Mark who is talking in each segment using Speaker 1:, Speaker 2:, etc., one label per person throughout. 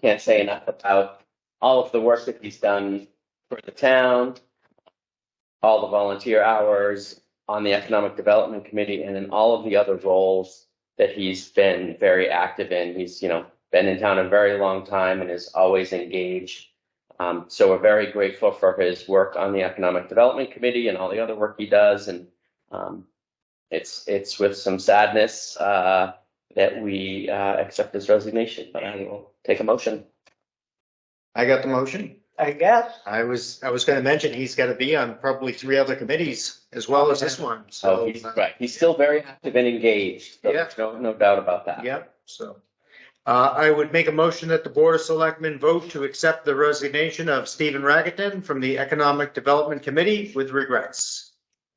Speaker 1: can't say enough about all of the work that he's done for the town, all the volunteer hours on the Economic Development Committee, and in all of the other roles that he's been very active in. He's, you know, been in town a very long time and is always engaged. Um, so we're very grateful for his work on the Economic Development Committee and all the other work he does. And um, it's it's with some sadness uh, that we uh, accept his resignation. But I will take a motion.
Speaker 2: I got the motion.
Speaker 3: I guess.
Speaker 2: I was, I was gonna mention, he's gotta be on probably three other committees as well as this one,
Speaker 4: Oh,
Speaker 1: So
Speaker 2: so.
Speaker 1: he's Oh, right. He's still very active and engaged. So
Speaker 2: Yeah.
Speaker 1: There's no, no doubt about that.
Speaker 2: Yep, so. Uh, I would make a motion that the Board of Selectmen vote to accept the resignation of Stephen Raggington from the Economic Development Committee with regrets.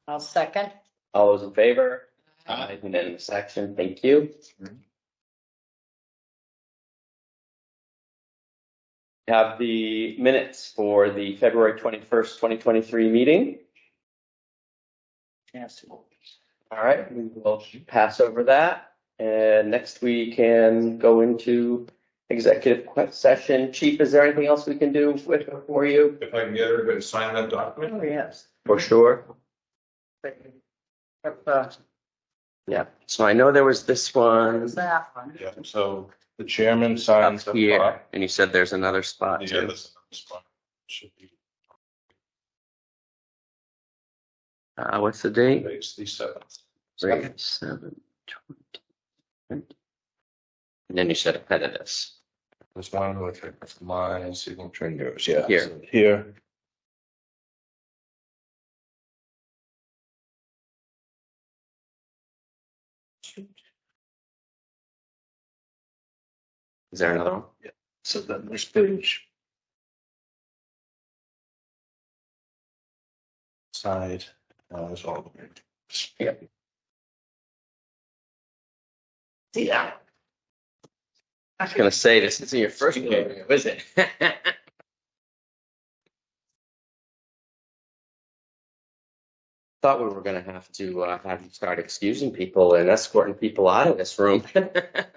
Speaker 3: I'll second.
Speaker 1: All those in favor? Aye. Mm-hmm. Unanimous action. Thank you.
Speaker 2: Mhm.
Speaker 1: We Have the minutes for the February twenty-first, twenty twenty-three meeting.
Speaker 3: Yes.
Speaker 1: All right, we will pass over that. And next we can go into executive que- session. Chief, is there anything else we can do with, for you?
Speaker 4: If I can get everybody to sign that document.
Speaker 3: Oh, yes.
Speaker 1: For sure.
Speaker 3: If, uh,
Speaker 1: Yeah, so I know there was this one
Speaker 2: Mm-hmm.
Speaker 3: there's that one.
Speaker 4: Yeah, so the chairman
Speaker 1: up
Speaker 4: signs. the
Speaker 1: here,
Speaker 4: bottom.
Speaker 1: and you said there's another spot
Speaker 4: Yeah,
Speaker 1: too.
Speaker 4: this is the spot. Should be
Speaker 1: Uh, what's the date?
Speaker 4: base the seventh.
Speaker 1: Three, seven, twenty. And then you said appendicitis.
Speaker 4: This one with my signature and yours, yeah.
Speaker 1: Here.
Speaker 4: so Here.
Speaker 1: Is there another one?
Speaker 4: So then there's page. Side, uh, is all.
Speaker 3: Yeah.
Speaker 1: I was gonna say, this isn't your first rodeo, is it? Thought we were gonna have to, uh, have you start excusing people and escorting people out of this room.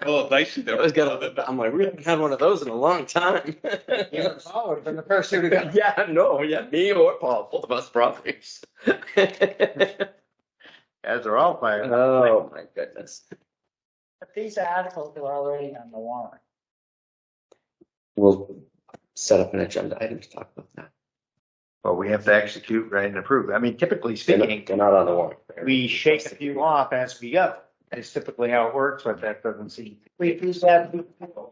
Speaker 4: Oh, Well, nice.
Speaker 1: I was gonna, I'm like, we haven't had one of those in a long time.
Speaker 3: You're forward from the first two to go.
Speaker 1: Yeah, no, yeah, me or Paul, both of us brothers.
Speaker 2: As are all fired.
Speaker 1: Oh, my goodness.
Speaker 3: But these articles are already on the warrant.
Speaker 1: We'll set up an agenda item to talk about that.
Speaker 2: Well, we have to execute, right, and approve. I mean, typically
Speaker 1: They're not-
Speaker 2: speaking,
Speaker 1: They're not on the warrant.
Speaker 2: we shake a few off as we go. That's typically how it works, but that doesn't seem.
Speaker 3: We do that before.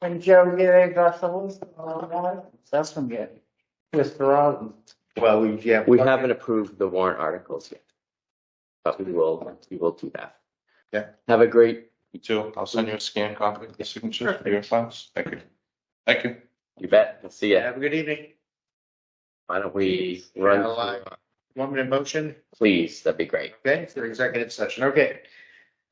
Speaker 3: when Joe Gary got the list of all the warrants. That's from Gary. Mr. Rollins.
Speaker 2: Well, we, uh, yeah.
Speaker 1: We haven't approved the warrant articles yet. But we will, we will do that.
Speaker 4: Yeah.
Speaker 1: Have a great,
Speaker 4: You too. I'll send you a scan copy of the signature for your files. Thank you. Thank you.
Speaker 1: you bet. We'll See ya.
Speaker 2: Have a good evening.
Speaker 1: Why don't we
Speaker 2: Yeah,
Speaker 1: run,
Speaker 2: like- Want me to motion?
Speaker 1: please? That'd be great.
Speaker 2: Okay, for executive session, okay.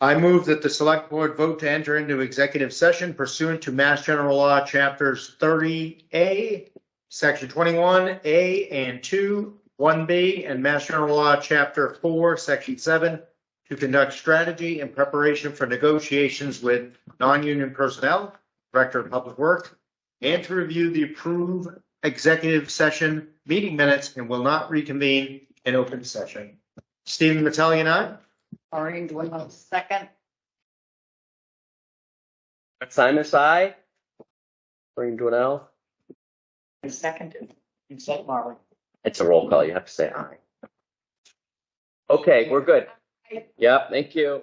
Speaker 2: I move that the select board vote to enter into executive session pursuant to Mass General Law Chapters thirty A, Section twenty-one A and two, one B, and Mass General Law Chapter four, Section seven, to conduct strategy in preparation for negotiations with non-union personnel, Director of Public Work, and to review the approved executive session meeting minutes and will not reconvene in open session. Stephen Metelli and I.
Speaker 3: Maureen Dwight, second.
Speaker 1: Simon Sy? Bring Dwinell?
Speaker 3: And seconded. And said Marley.
Speaker 1: It's a roll call. You have to say aye. Okay, we're good. Yep, thank you.